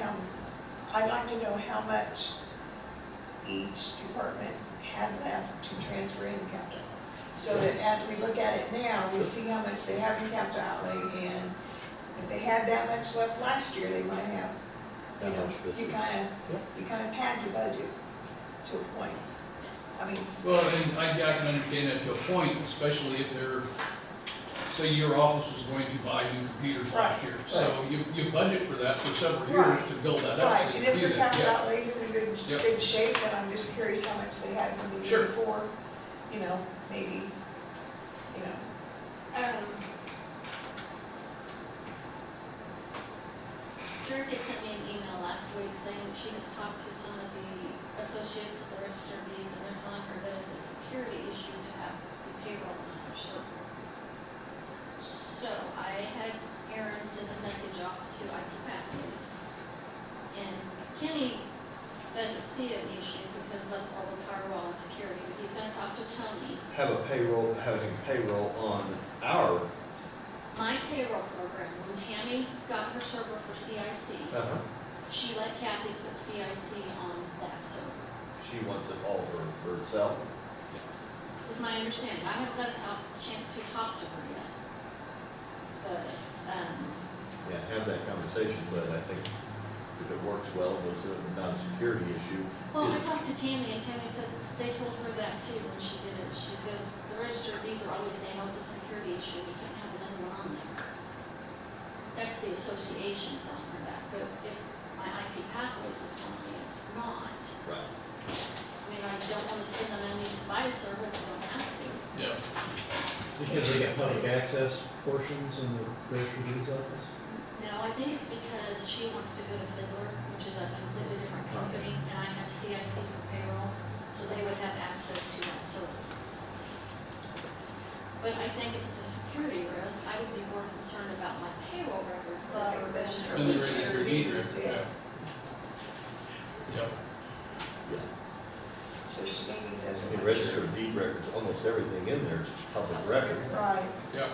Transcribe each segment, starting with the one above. Um, I'd like to know how much each department had left to transfer in capital. So that as we look at it now, we see how much they have in capital outlay, and if they had that much left last year, they might have, you That know, much this you year. kind of, you kind of pad your budget to a point. I mean, Well, and I, I can understand that to a point, especially if they're, say your office was going to buy new computers last year. So you, you budget for that for several years Right. to build that up. Right, so and you if do the that, capital yeah. outlays in a good, Yep. good shape, then I'm just curious how much they had in the year Sure. before, you know, maybe, you know, Um, Drew had sent me an email last week saying that she has talked to some of the associates of the register of deeds, and they're telling her that it's a security issue to have the payroll on her server. So I had Aaron send a message off to Ike Matthews, and Kenny doesn't see an issue because of all the firewall and security, but he's gonna talk to Tony, Have a payroll, having payroll on our, My payroll program, when Tammy got her server for CIC, uh-huh, she let Kathy put CIC on that server. she wants it all for for herself. Yes. Is my understanding. I haven't got a talk, chance to talk to her yet. But, um, Yeah, have that conversation, but I think if it works well, there's a- not a security issue. well, I Is- talked to Tammy and Tammy said they told her that too when she did it. She goes, the register of deeds are always saying, oh, it's a security issue. You can't have another one on there. That's the association telling her that. But if my IP pathways is telling me it's not, Right. I mean, I don't want to spend the money to buy a server if I don't have to. Yeah, Because they got public access portions in the grocery deeds office? No, I think it's because she wants to go to Fiddler, which is a completely different company, and I have CIC for payroll, so they would have access to that server. But I think if it's a security risk, I would be more concerned about my payroll records than Right, the that's register. and the Each register of deeds, reasons, yeah. yeah. Yep. Yeah. so she maybe I doesn't. mean, want register of deed records, almost everything in there is public record. to- Right, Yep.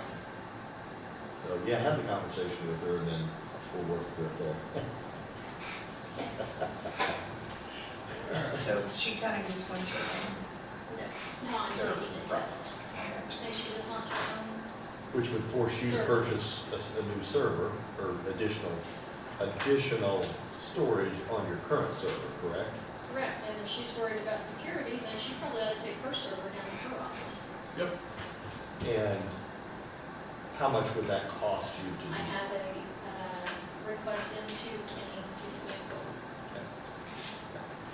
So, yeah, have the conversation with her, and then we'll work through it there. so she kind of just wants her own. Yes, no, I'm Server. thinking it, yes. I I think she just wants her own, Which would force you to Server. purchase a, s- a new server or additional, additional storage on your current server, correct? correct, and if she's worried about security, then she probably ought to take her server down to her office. And how much would that cost you I to? have a uh, request into Kenny to get me a quote.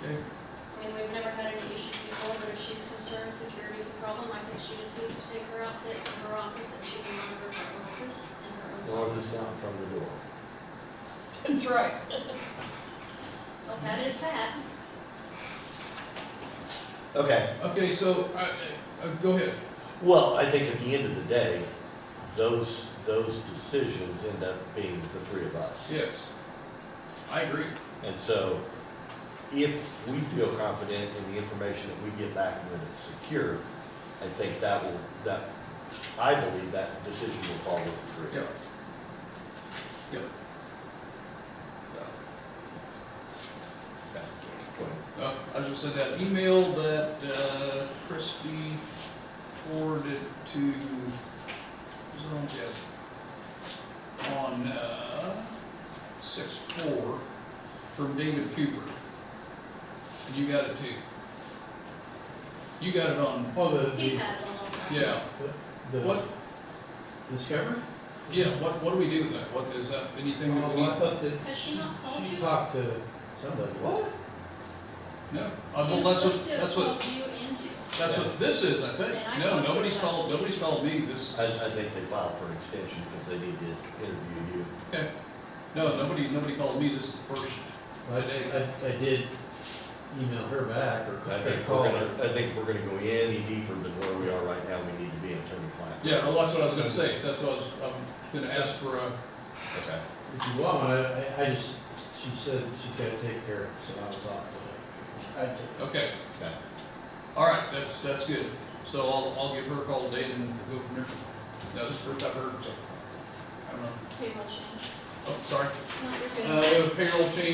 Okay. I mean, we've never had any issues before, but if she's concerned security's a problem, I think she just needs to take her outfit from her office and she can monitor her own office and her own. As long as self. it's not in front of the door. That's right. Well, that is bad. Okay, Okay, so, I, I, go ahead. well, I think at the end of the day, those, those decisions end up being the three of us. Yes. I agree. And so if we feel confident in the information that we get back and that it's secure, I think that will, that, I believe that decision will follow through. Yep. Yep. Uh, I was just send that email that uh, Christie forwarded to, was it on Jess? On, uh, six four, from David Cooper. And you got it too. You got it on, Oh, the, He's the, had it a long time. yeah, the what, discovery? yeah, what, what do we do with that? What is that, anything that we Oh, I need? thought that Has she she, not called she you? talked to somebody. What? No, Uh, well, that's what, that's what, She was supposed to have called you and you. that's what this is, I think. And I No, talked to her nobody's last called, week. nobody's called me this, I, I think they filed for an extension because they need to interview you. Okay. No, nobody, nobody called me, this is the first. I, I, I did email her back or I or think call we're her. gonna, I think if we're gonna go any deeper than where we are right now, we need to be attorney-client. Yeah, well, that's what I was gonna say, that's what I was, I'm gonna ask for a, Okay. If you want, I, I- I just, she said she's gotta take care of it, so I was off today. I took okay, Okay. all right, that's, that's good. So I'll, I'll give her a call today and we'll go from there. No, this is the first I've heard, so, I don't know, Payroll change. oh, sorry. No, you're good. Uh, we have a payroll change